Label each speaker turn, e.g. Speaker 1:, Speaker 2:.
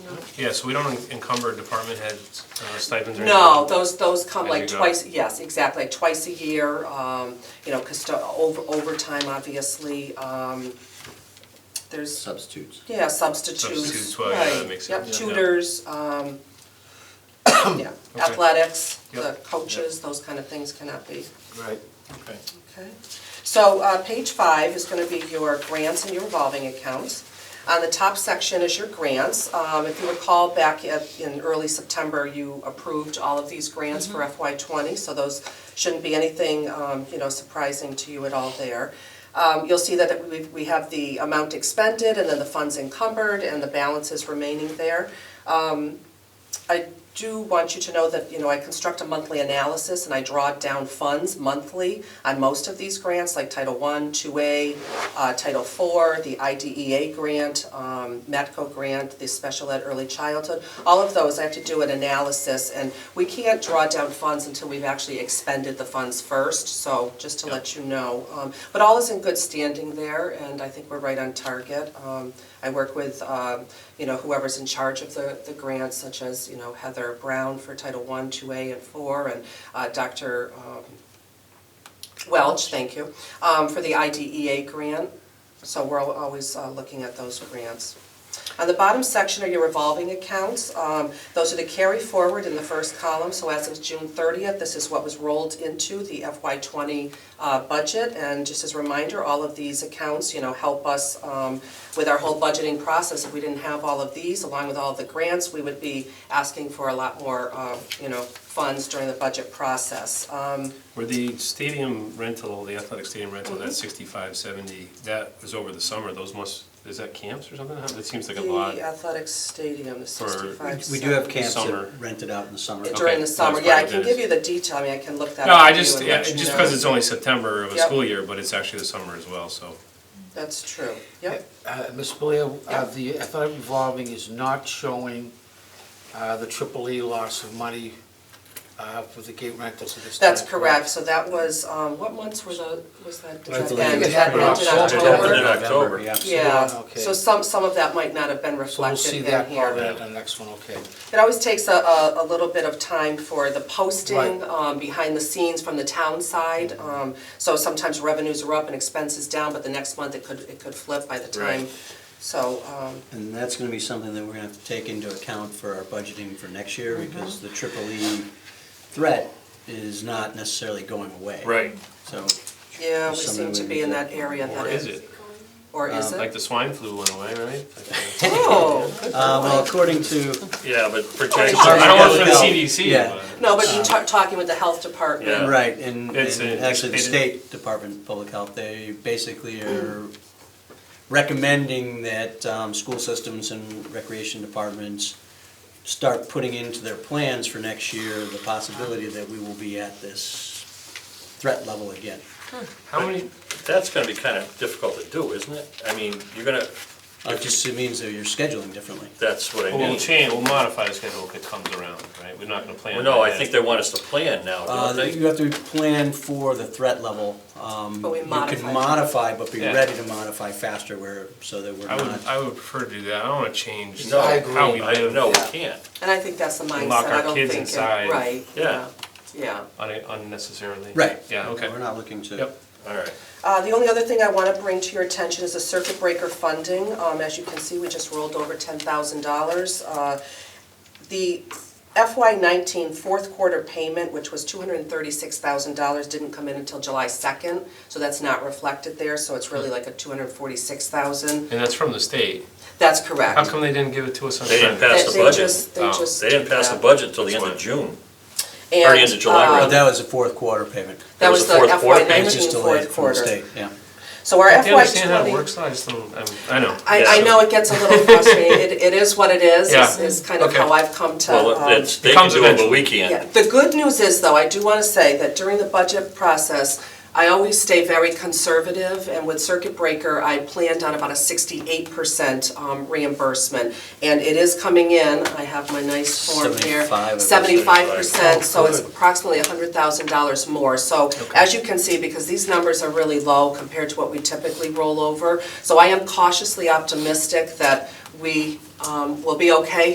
Speaker 1: Yeah, so we don't encumber department heads uh, stipends or anything?
Speaker 2: No, those, those come
Speaker 1: As
Speaker 2: like
Speaker 1: you go.
Speaker 2: twice, yes, exactly, like twice a year, um, you know, custo, over, overtime, obviously, um, there's,
Speaker 3: substitutes.
Speaker 2: yeah, substitutes, right.
Speaker 1: Substitutes, well, yeah, that makes
Speaker 2: Yep,
Speaker 1: sense. Yeah.
Speaker 2: tutors, um, yeah,
Speaker 1: Okay.
Speaker 2: athletics, the
Speaker 1: Yep.
Speaker 2: coaches, those kind of things cannot be.
Speaker 3: Right. Okay.
Speaker 2: Okay, so uh, page five is going to be your grants and your revolving accounts. On the top section is your grants. Um, If you recall, back at- in early September, you approved all of these grants for
Speaker 1: Mm-hmm.
Speaker 2: FY '20, so those shouldn't be anything, um, you know, surprising to you at all there. Um, You'll see that we- we have the amount expended, and then the funds encumbered, and the balances remaining there. I do want you to know that, you know, I construct a monthly analysis and I draw down funds monthly on most of these grants, like Title I, 2A, uh, Title IV, the IDEA grant, um, Matco grant, the Special Ed Early Childhood. All of those, I have to do an analysis and we can't draw down funds until we've actually expended the funds first, so just to let you know. Um, But all is in good standing there and I think we're right on target. Um, I work with, um, you know, whoever's in charge of the, the grants, such as, you know, Heather Brown for Title I, 2A, and 4, and uh, Dr. um, Welch, thank you, um, for the IDEA grant. So we're al- always uh, looking at those grants. On the bottom section are your revolving accounts. Um, Those are the carry forward in the first column, so as of June 30th, this is what was rolled into the FY '20 uh, budget. And just as a reminder, all of these accounts, you know, help us um, with our whole budgeting process. If we didn't have all of these, along with all of the grants, we would be asking for a lot more, uh, you know, funds during the budget process. Um,
Speaker 1: Were the stadium rental, the athletic stadium rental,
Speaker 2: Mm-hmm.
Speaker 1: that sixty-five, seventy, that was over the summer, those must, is that camps or something? How- That seems like a lot.
Speaker 2: The athletic stadium, the
Speaker 1: For-
Speaker 2: sixty-five.
Speaker 3: We do have
Speaker 2: seat.
Speaker 3: camps
Speaker 1: Summer.
Speaker 3: that rented out in the summer.
Speaker 1: Okay.
Speaker 2: During the
Speaker 1: that's
Speaker 2: summer,
Speaker 1: what
Speaker 2: yeah, I
Speaker 1: it
Speaker 2: can
Speaker 1: is.
Speaker 2: give you the detail, I mean, I can look that up.
Speaker 1: No, I
Speaker 2: for you
Speaker 1: just,
Speaker 2: and
Speaker 1: yeah,
Speaker 2: let you
Speaker 1: just
Speaker 2: know.
Speaker 1: because it's only September of a
Speaker 2: Yep.
Speaker 1: school year, but it's actually the summer as well, so.
Speaker 2: That's true, yep.
Speaker 4: Uh, Ms. Balea, uh, the athletic revolving is not showing uh, the triple E loss of money uh, for the gate rentals at this time.
Speaker 2: That's correct, so that was, um, what months were the, was that, did
Speaker 3: Right,
Speaker 2: that
Speaker 3: the
Speaker 2: end?
Speaker 3: late
Speaker 2: Did that
Speaker 4: October.
Speaker 2: end in
Speaker 4: October.
Speaker 2: October?
Speaker 4: Yeah.
Speaker 3: October. Yeah.
Speaker 2: Yeah,
Speaker 4: Okay.
Speaker 2: so some, some of that might not have been
Speaker 4: So we'll
Speaker 2: reflected
Speaker 4: see
Speaker 2: in
Speaker 4: that part
Speaker 2: here.
Speaker 4: at the next one, okay.
Speaker 2: It always takes a, a, a little bit of time for the posting,
Speaker 4: Right.
Speaker 2: um, behind the scenes from the town side. Um, so sometimes revenues are up and expenses down, but the next month it could, it could flip by the time.
Speaker 1: Right.
Speaker 2: So, um,
Speaker 3: And that's gonna be something that we're gonna have to take into account for our budgeting for next year, because the triple E threat is not necessarily going away. So,
Speaker 2: Yeah, we seem
Speaker 3: Something
Speaker 2: to
Speaker 3: we
Speaker 2: be
Speaker 3: need
Speaker 2: in
Speaker 3: to-
Speaker 2: that area that
Speaker 1: Or is it? Uh,
Speaker 2: Or is
Speaker 1: Like
Speaker 2: it?
Speaker 1: the swine flu went away, right?
Speaker 2: Oh,
Speaker 3: uh, well, according to,
Speaker 1: Yeah, but
Speaker 2: projections-
Speaker 1: I don't work for the
Speaker 3: Yeah.
Speaker 1: CDC,
Speaker 3: Yeah.
Speaker 1: but.
Speaker 2: no, but you're ta- talking with the health department.
Speaker 1: Yeah.
Speaker 3: right, and,
Speaker 1: It's
Speaker 3: and
Speaker 1: a-
Speaker 3: actually the
Speaker 1: it's-
Speaker 3: State Department of Public Health, they basically are recommending that, um, school systems and recreation departments start putting into their plans for next year the possibility that we will be at this threat level again.
Speaker 1: How many,
Speaker 5: That's gonna be kind of difficult to do, isn't it? I mean, you're gonna,
Speaker 3: It just means that you're scheduling differently.
Speaker 5: that's what I
Speaker 1: we'll
Speaker 5: mean.
Speaker 1: change, we'll modify the schedule if it comes around, right? We're not gonna plan.
Speaker 5: Well, No, I
Speaker 1: ahead.
Speaker 5: think they want us to plan now,
Speaker 3: Uh,
Speaker 5: don't
Speaker 3: You
Speaker 5: they?
Speaker 3: have to plan for the threat level. um,
Speaker 2: But we
Speaker 3: You
Speaker 2: modify.
Speaker 3: can modify, but be
Speaker 1: Yeah.
Speaker 3: ready to modify faster where, so that we're
Speaker 1: I would,
Speaker 3: not.
Speaker 1: I would prefer to do that, I don't wanna change
Speaker 5: No, I
Speaker 1: how we
Speaker 4: agree.
Speaker 5: I,
Speaker 1: live
Speaker 5: no, we
Speaker 2: Yeah.
Speaker 5: can't.
Speaker 2: And I think that's the mindset,
Speaker 1: Lock our
Speaker 2: I don't
Speaker 1: kids
Speaker 2: think, it-
Speaker 1: inside.
Speaker 2: right, yeah,
Speaker 5: Yeah.
Speaker 2: yeah.
Speaker 1: un- unnecessarily.
Speaker 3: Right.
Speaker 1: Yeah, okay.
Speaker 3: We're not looking to.
Speaker 1: Yep.
Speaker 5: All right.
Speaker 2: Uh, The only other thing I want to bring to your attention is the circuit breaker funding. Um, As you can see, we just rolled over $10,000. Uh, The FY '19 fourth quarter payment, which was $236,000, didn't come in until July 2nd, so that's not reflected there, so it's really like a $246,000.
Speaker 1: And that's from the state.
Speaker 2: That's correct.
Speaker 1: How come they didn't give it to us on
Speaker 5: They didn't
Speaker 1: Friday?
Speaker 5: pass
Speaker 2: They-
Speaker 5: the
Speaker 2: they
Speaker 5: budget.
Speaker 2: just- They
Speaker 1: Oh,
Speaker 2: just.
Speaker 5: They didn't pass the
Speaker 2: yeah.
Speaker 5: budget until the end of June.
Speaker 2: And,
Speaker 5: end of July,
Speaker 2: uh,
Speaker 3: But
Speaker 5: rather.
Speaker 3: that was the fourth quarter payment.
Speaker 2: That
Speaker 5: It
Speaker 2: was
Speaker 5: was the
Speaker 2: the
Speaker 5: fourth quarter
Speaker 2: FY
Speaker 5: payment?
Speaker 3: It's
Speaker 2: nineteen
Speaker 3: just
Speaker 2: fourth
Speaker 3: delayed from the
Speaker 2: quarter.
Speaker 3: state, yeah.
Speaker 2: So our
Speaker 1: Do you
Speaker 2: FY
Speaker 1: understand how it
Speaker 2: twenty,
Speaker 1: works? I just don't, I'm, I know.
Speaker 2: I, I
Speaker 5: Yeah.
Speaker 2: know it gets a little frustrating, it, it is what it is, is,
Speaker 1: Yeah.
Speaker 2: is kind of
Speaker 1: Okay.
Speaker 2: how I've come to, um,
Speaker 5: Well, it's, they can
Speaker 1: Comes
Speaker 5: do it, but
Speaker 1: eventually.
Speaker 5: we can't.
Speaker 2: yeah, the good news is, though, I do want to say that during the budget process, I always stay very conservative, and with Circuit Breaker, I planned on about a sixty-eight percent um, reimbursement. And it is coming in, I have my nice form here.
Speaker 3: 75 of it.
Speaker 2: percent, so it's approximately hundred thousand dollars more. So as you can see, because these numbers are really low compared to what we typically roll over, so I am cautiously optimistic that we um, will be okay